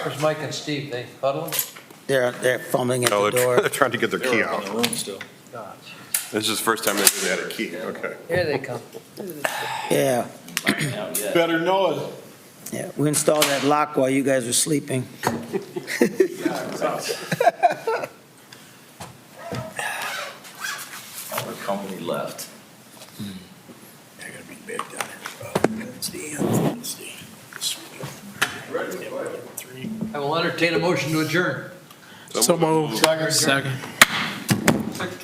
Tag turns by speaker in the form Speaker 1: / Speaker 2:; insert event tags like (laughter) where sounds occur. Speaker 1: Where's Mike and Steve? They huddling?
Speaker 2: They're, they're fumbling at the
Speaker 3: No, Oh, they're they're
Speaker 2: door.
Speaker 3: (laughs) trying to get their key
Speaker 4: On
Speaker 3: out.
Speaker 4: the room still.
Speaker 1: God.
Speaker 3: This is the first time they've had a key, okay.
Speaker 1: Here they come.
Speaker 2: Yeah,
Speaker 4: Not yet.
Speaker 3: Better know it.
Speaker 2: yeah. We installed that lock while you guys were sleeping.
Speaker 4: Our company left.
Speaker 5: They're gonna be big down here. It's the end, it's the.
Speaker 1: I will entertain a motion to adjourn.
Speaker 3: So moved.
Speaker 1: Second.